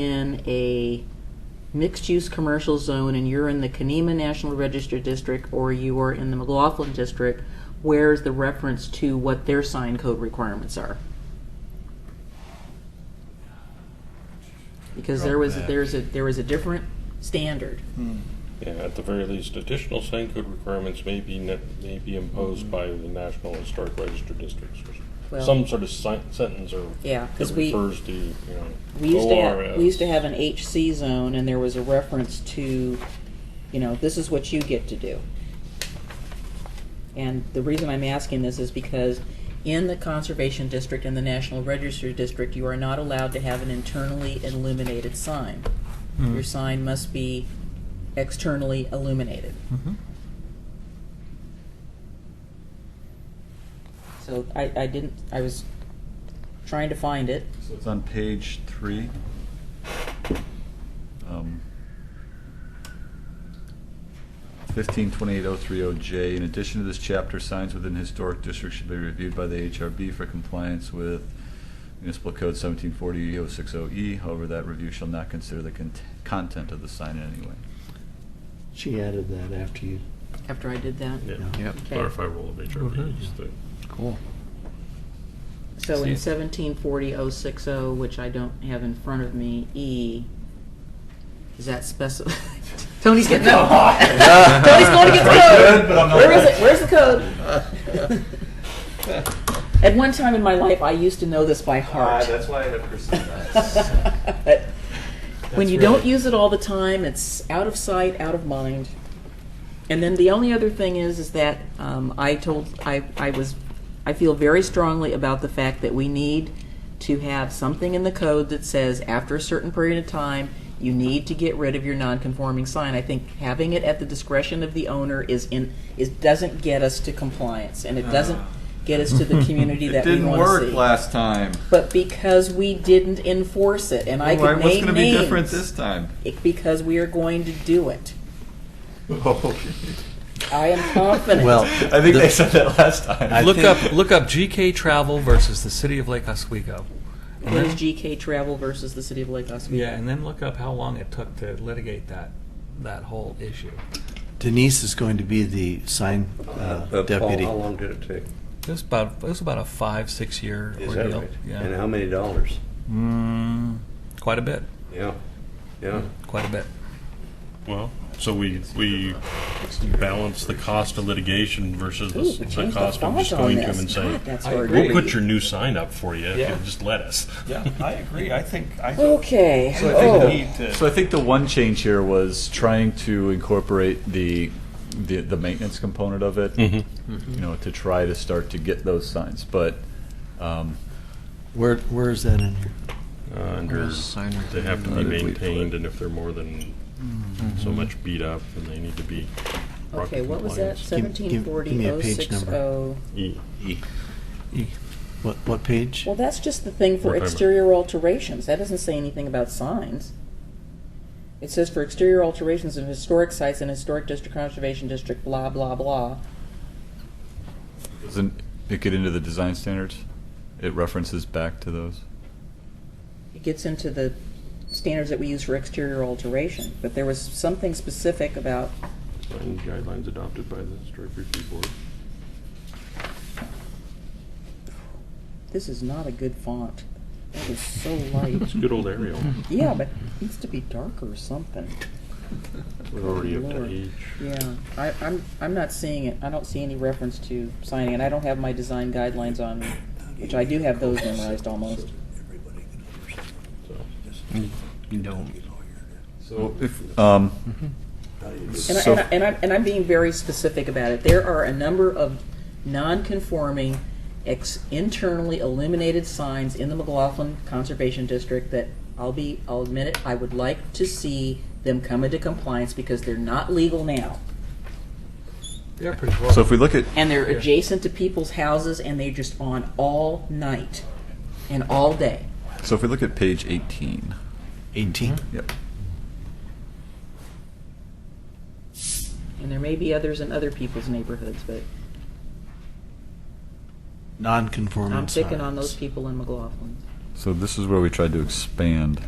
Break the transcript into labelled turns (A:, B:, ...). A: in a mixed-use commercial zone and you're in the Kenema National Register District or you are in the McLaughlin District, where's the reference to what their sign code requirements are? Because there was,
B: Drop that.
A: there's a, there was a different standard.
C: Yeah, at the very least, additional sign code requirements may be, ne- may be imposed by the National Historic Register Districts. or
A: Mm-hmm. Well-
C: Some sort of sen- sentence or.
A: Yeah, 'cause
C: that
A: we-
C: Refers to, you
A: We used to
C: know,
A: have, we used to have
C: ORS.
A: an HC zone and there was a reference to, you know, this is what you get to do. And the reason I'm asking this is because in the conservation district and the national register district, you are not allowed to have an internally illuminated sign.
C: Mm-hmm.
A: Your sign must be externally illuminated. So I, I didn't, I was trying to find it.
B: So it's on page three. Um, 1528030J, in addition to this chapter, signs within historic districts should be reviewed by the HRB for compliance with municipal code 1740-060E. E. However, that review shall not consider the cont- content of the sign in any way.
D: She added that after you.
A: After I did that.
C: Yeah,
D: Yep.
C: clarify role of HRB, is the-
D: Cool.
A: So in
B: See.
A: seventeen forty oh six oh, which I don't have in front of me, E, is that specified? Tony's getting, no. Tony's going to get the
B: Good, but
A: code.
B: I'm not
A: Where is
B: right.
A: it? Where's the code? At one time in my life, I used to know this by heart.
B: why I have
A: But When you don't use it all the time, it's out of sight, out of mind. And then the only other thing is, is that um, I told, I, I was, I feel very strongly about the fact that we need to have something in the code that says after a certain period of time, you need to get rid of your non-conforming sign. I think having it at the discretion of the owner is in, is, doesn't get us to compliance, and it doesn't get us to the community
B: Ah. It
A: that we
B: didn't
A: want to see.
B: work last time.
A: But because we didn't enforce it, and I
B: Why-
A: could name
B: What's going to be
A: names.
B: different this time?
A: It- Because we are going to do it.
B: I
A: I am confident.
D: Well,
B: think they said that last time.
D: I
E: look
D: think-
E: up look up GK Travel versus the City of Lake Oswego.
A: What
D: uh-huh.
A: is GK Travel versus the City of Lake Oswego?
E: Yeah, and then look up how long it took to litigate that that whole issue.
D: Denise is going to be the sign uh,
F: Uh, Paul,
D: deputy.
F: How long did it take?
E: It was about it was about a five six year
F: Is that
E: ordeal.
F: right?
E: Yeah,
F: And how many dollars?
E: mm, quite a bit,
F: Yeah, yeah.
E: quite a bit.
C: Well, so we, we balance the cost of litigation versus
A: Ooh,
C: the the
A: change the
C: cost of
A: font
C: just
A: on
C: going to
A: this.
C: him and
A: God,
C: saying,
A: that's
E: I
A: hard to
E: agree.
C: we'll
A: read.
C: put your new sign up for you if
E: Yeah.
C: you just let us.
G: Yeah, I agree. I think, I think
A: Okay.
G: So I think
A: Oh.
G: we need to-
B: So I think the one change here was trying to incorporate the, the, the maintenance component of
E: Hmm.
B: it.
C: Mm-hmm.
B: You know, to try to start to get those signs, but, um,
D: Where, where is that in here?
C: Uh, Under, they have to
B: How
C: be
B: did we put
C: maintained,
B: it?
C: and if they're more than so much beat up, then they need to be brought to
A: Okay, what was that?
C: compliance.
D: Give- give-
A: Seventeen
D: give
A: forty
D: me a
A: oh
D: page
A: six
D: number.
A: oh.
C: E.
D: E. What, what page?
A: Well, that's just the thing for
C: What time?
A: exterior alterations. That doesn't say anything about signs. It says for exterior alterations of historic sites and historic district conservation district, blah, blah, blah.
B: doesn't it get into the design standards? It references back to those?
A: it gets into the standards that we use for exterior alteration, but there was something specific about,
C: Sign guidelines adopted by the historic review board.
A: this is not a good font. That is so light.
C: It's good old Arial.
A: Yeah, but it needs to be darker or something.
C: We're already up to
A: Lord.
C: H.
A: Yeah, I, I'm, I'm not seeing it. I don't see any reference to signing, and I don't have my design guidelines on me, which I do have those memorized almost.
B: So if, um,
A: And, I,
B: So-
A: and, I, and, I'm, and I'm being very specific about it. There are a number of non-conforming, ex- internally illuminated signs in the McLaughlin Conservation District that I'll be, I'll admit it, I would like to see them come into compliance because they're not legal now.
E: They're pretty close.
B: so if we look at,
A: And they're adjacent to people's houses and they're just on all night and all day.
B: so if we look at page eighteen,
D: 18?
B: yep.
A: And there may be others in other people's neighborhoods, but
D: Non-conforming
A: I'm picking on
D: signs.
A: those people in McLaughlin.
B: So this is where we tried to expand